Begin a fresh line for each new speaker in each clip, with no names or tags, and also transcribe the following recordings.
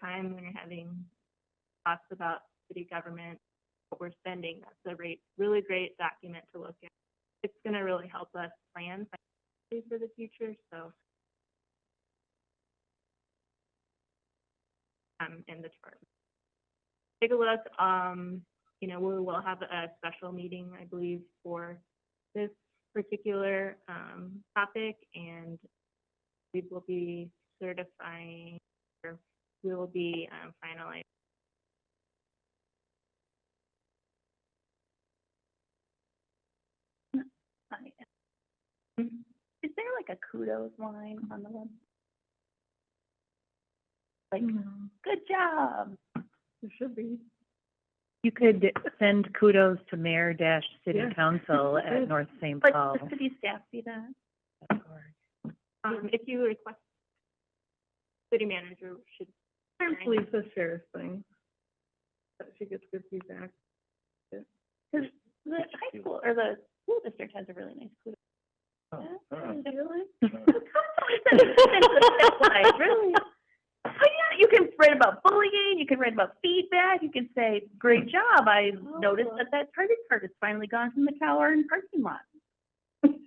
time when you're having thoughts about city government, what we're spending. That's a rate, really great document to look at. It's gonna really help us plan financially for the future, so. Um, in the term. Take a look, um, you know, we will have a special meeting, I believe, for this particular, um, topic and we will be certifying, or we will be, um, finalizing
Hi.
Mm-hmm.
Is there like a kudos line on the web? Like, good job. There should be.
You could send kudos to mayor dash city
Yeah.
council at North St.
Like,
Paul.
the city staff see that?
Um, if you request, city manager should,
Actually, the sheriff thing. That she gets good feedback. Cause the high school, or the school district has a really nice kudos.
Oh,
Really? Really? Oh, yeah, you can write about bullying, you can write about feedback, you can say, great job, I
Oh.
noticed that that credit card has finally gone from the tower and parking lot. Why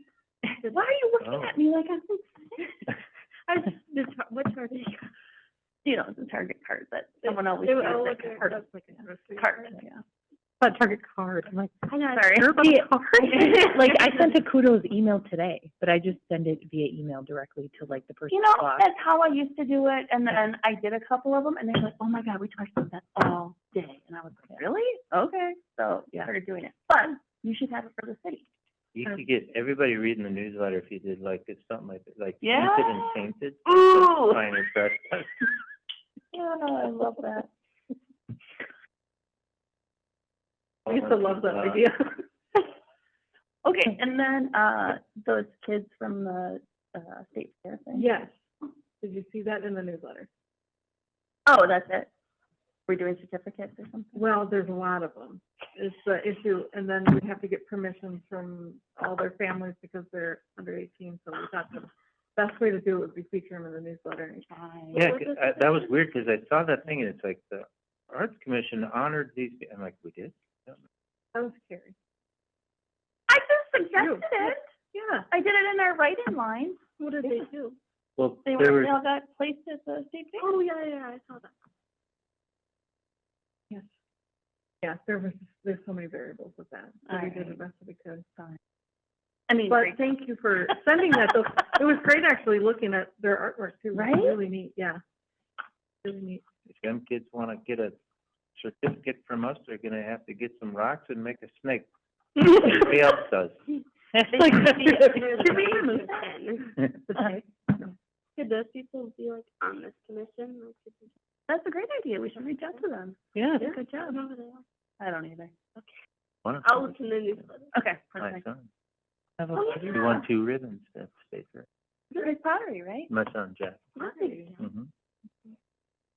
are you
Oh.
looking at me like I'm insane? I was, this, what card is You know, it's a Target card that someone always
they
uses.
would all look
that
at
card-
us like a grocery
Card,
store.
yeah.
But Target card, I'm like,
I know.
sorry. Yeah, Like, I sent a kudos email today, but I just send it via email directly to like the person
You know,
blocked.
that's how I used to do it, and then I did a couple of them, and they were like, "Oh my god, we talked about that all day," and I was like, "Really? Okay." So yeah, started doing it. But you should have it for the city.
You could get everybody reading the newsletter if you did like, it's something like, like
Yeah. Oh.
painted and painted.
Ooh.
Sign is best.
Yeah, I love that.
Uh,
okay, and then uh, those kids from the uh, state fair thing.
Yes. Did you see that in the newsletter?
Oh, that's it. We're doing certificates or something.
Well, there's a lot of them. It's the issue, and then we have to get permission from all their families because they're under eighteen, so we thought the best way to do it would be feature them in the newsletter.
Yeah, 'cause I- that was weird because I saw that thing and it's like the Arts Commission honored these, pe- I'm like, we did?
That was scary.
I just suggested it.
Yeah,
I did it in our write-in line.
what did they do?
Well,
They
there
were, they
were,
all got placed at the state fair.
Oh, yeah, yeah, I saw that. Yes. Yeah, there was, there's so many variables with that, so we did the
Alright.
best that we could.
I mean,
But thank you for sending that, though. It was great actually looking at their artwork too. It was
Right?
Really neat, yeah. Really neat.
if them kids want to get a certificate from us, they're going to have to get some rocks and make a snake. Everybody else does.
Like,
Did we remove
Could those people be like on this commission? Like, could we-
That's a great idea. We should reach out to them.
Yeah.
Good
I
job.
don't know who they are.
I don't either.
Wonderful.
I'll look in the newsletter.
Okay,
My
Oh, perfect.
son.
Have a-
Oh,
He
yeah.
won two ribbons at State Fair.
Great pottery, right?
My son, Jack.
Pottery.
hmm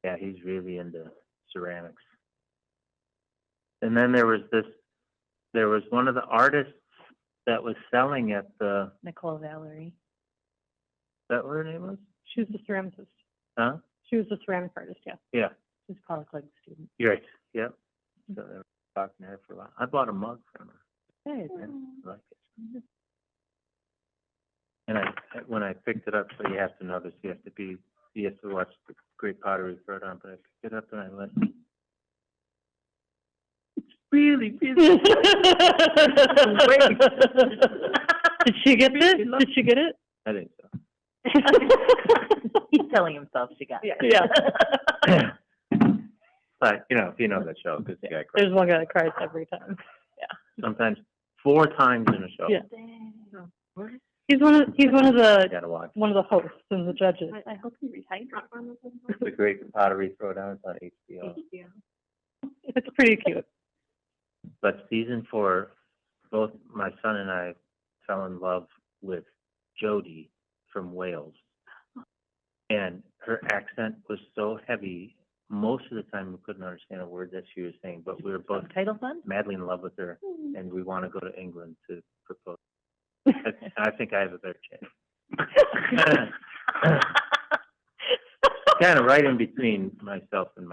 Yeah, he's really into ceramics. And then there was this, there was one of the artists that was selling at the, is
Nicole Valerie.
that what her name was?
She was a ceramicist.
Huh?
She was a ceramic artist, yeah.
Yeah,
She's a college level student.
you're right, yep. So they were talking to her for a while. I bought a mug from her,
Good.
I like it. And I, when I picked it up, so you have to know this, you have to be, you have to watch the Great Pottery Throwdown, but I picked it up and I went,
Really,
Did she get it? Did she get it?
I didn't sell.
He's telling himself she got
it.
Yeah.
But, you know, if you know that show, because the guy cried.
There's one guy that cries every time.
sometimes four times in a show.
Yeah.
What?
He's one of, he's one of
You
the,
gotta watch.
one of the hosts and the judges.
I hope you rehydrate.
The Great Pottery Throwdown is on HBO.
Yeah.
It's pretty cute.
But season four, both my son and I fell in love with Jodie from Wales. And her accent was so heavy, most of the time we couldn't understand a word that she was saying, but we were both
Title fund?
madly in love with her and we want to go to England to propose. I, I think I have a better chance. kind of right in between myself and